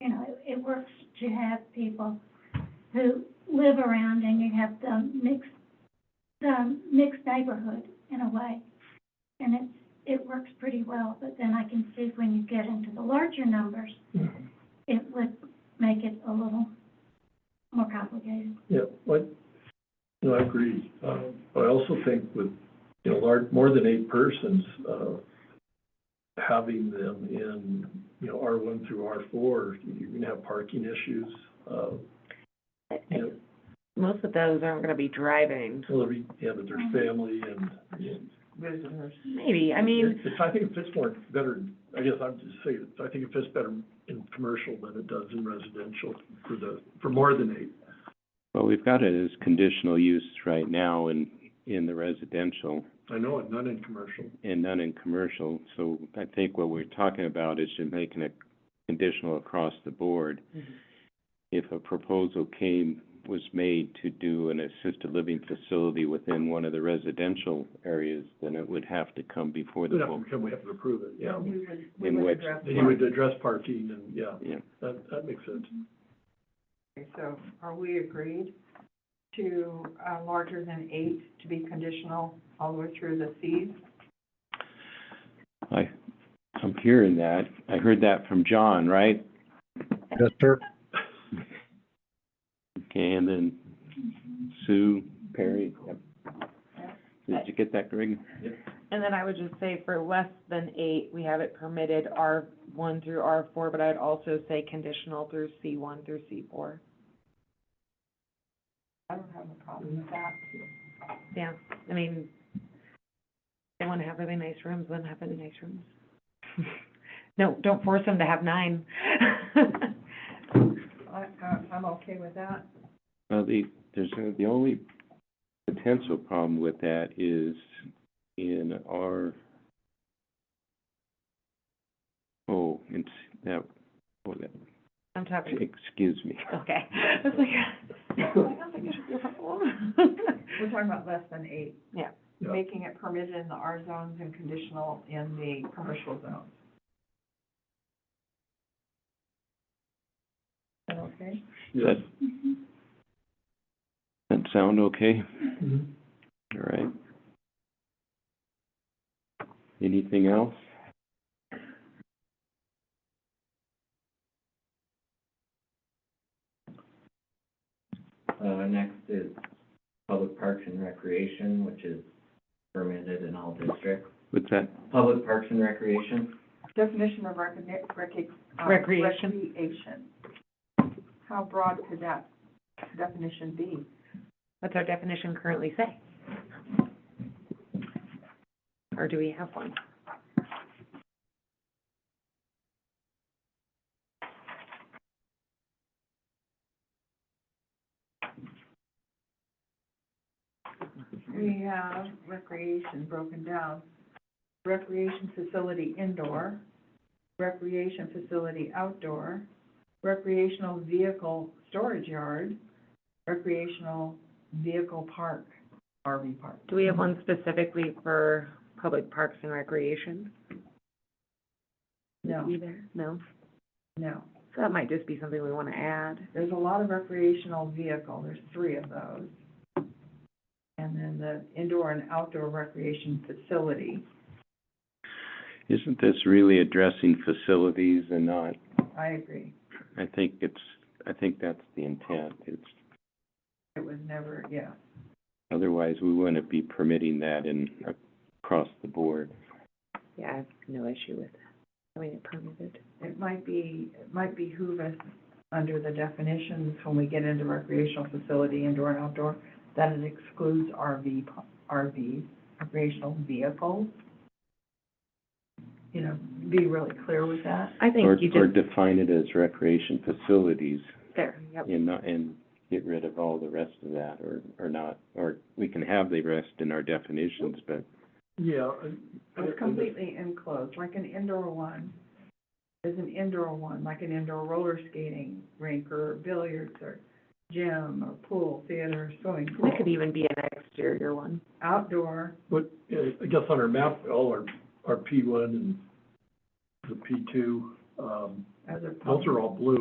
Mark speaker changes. Speaker 1: it works to have people who live around and you have the mixed, the mixed neighborhood in a way. And it's, it works pretty well, but then I can see when you get into the larger numbers, it would make it a little more complicated.
Speaker 2: Yeah, what, no, I agree. Um, but I also think with, you know, large, more than eight persons, uh, having them in, you know, R one through R four, you're gonna have parking issues. Uh, you know,
Speaker 3: Most of those aren't gonna be driving.
Speaker 2: well, every- yeah, but there's family and,
Speaker 3: Maybe, I mean,
Speaker 2: It's- I think it fits more, better, I guess I'm just saying, I think it fits better in commercial than it does in residential for the, for more than eight.
Speaker 4: Well, we've got it as conditional use right now in, in the residential
Speaker 2: I know, it, not in commercial.
Speaker 4: and none in commercial. So I think what we're talking about is just making it conditional across the board. If a proposal came, was made to do an assisted living facility within one of the residential areas, then it would have to come before
Speaker 2: We'd
Speaker 4: the
Speaker 2: have to
Speaker 4: board.
Speaker 2: come, we have to approve it, yeah.
Speaker 5: We would, we
Speaker 4: In
Speaker 5: would
Speaker 4: which-
Speaker 5: address
Speaker 2: Then you would address parking and, yeah,
Speaker 4: Yeah,
Speaker 2: that, that makes sense.
Speaker 5: that. So are we agreed to, uh, larger than eight to be conditional all the way through the Cs?
Speaker 4: I, I'm hearing that. I heard that from John, right?
Speaker 6: Yes, sir.
Speaker 4: Okay, and then Sue, Perry, yep. Did you get that, Greg?
Speaker 7: And then I would just say for less than eight, we have it permitted R one through R four, but I'd also say conditional through C one through C four.
Speaker 5: I don't have a problem with that.
Speaker 7: Yeah, I mean, they wanna have really nice rooms, let them have really nice rooms. No, don't force them to have nine.
Speaker 5: I, I, I'm okay with that.
Speaker 4: Well, the, there's, uh, the only potential problem with that is in our, oh, it's, that, oh, that,
Speaker 7: I'm talking,
Speaker 4: excuse me.
Speaker 7: okay, I was like, I don't think I should be a problem.
Speaker 5: We're talking about less than eight.
Speaker 7: Yeah.
Speaker 2: Yeah.
Speaker 5: Making it permitted in the R zones and conditional in the commercial zones. Is that Okay.
Speaker 4: Does that, that sound okay?
Speaker 2: Mhm.
Speaker 4: All right. Anything else?
Speaker 8: Uh, next is public parks and recreation, which is permitted in all districts.
Speaker 4: What's that?
Speaker 8: Public parks and recreation,
Speaker 5: Definition of recogni- recog- uh,
Speaker 7: Recreation.
Speaker 5: recreation. How broad could that definition be?
Speaker 7: What's our definition currently say? Or do we have one?
Speaker 5: We have recreation broken down. Recreation facility indoor, recreation facility outdoor, recreational vehicle storage yard, recreational vehicle park, RV park.
Speaker 7: Do we have one specifically for public parks and recreation?
Speaker 5: No,
Speaker 7: Either, no?
Speaker 5: no.
Speaker 7: So that might just be something we wanna add.
Speaker 5: There's a lot of recreational vehicle, there's three of those. And then the indoor and outdoor recreation facility.
Speaker 4: Isn't this really addressing facilities and not,
Speaker 5: I agree.
Speaker 4: I think it's, I think that's the intent. It's,
Speaker 5: It was never, yeah.
Speaker 4: otherwise we wouldn't be permitting that in, across the board.
Speaker 7: Yeah, I have no issue with having it permitted.
Speaker 5: it might be, it might behoove us, under the definitions, when we get into recreational facility, indoor and outdoor, that it excludes RV, p- RVs, recreational vehicles. You know, be really clear with that.
Speaker 7: I
Speaker 4: Or,
Speaker 7: think you
Speaker 4: or
Speaker 7: just,
Speaker 4: define it as recreation facilities
Speaker 7: there, yep.
Speaker 4: and not, and get rid of all the rest of that or, or not. Or we can have the rest in our definitions, but
Speaker 2: Yeah. I- I-
Speaker 5: It's completely enclosed, like an indoor one, is an indoor one, like an indoor roller skating rink or billiards or gym or pool, theater, swimming pool.
Speaker 7: It could even be an exterior one.
Speaker 5: Outdoor,
Speaker 2: But, yeah, I guess on our map, all our, our P one and the P two, um,
Speaker 5: as a.
Speaker 2: those are all blue.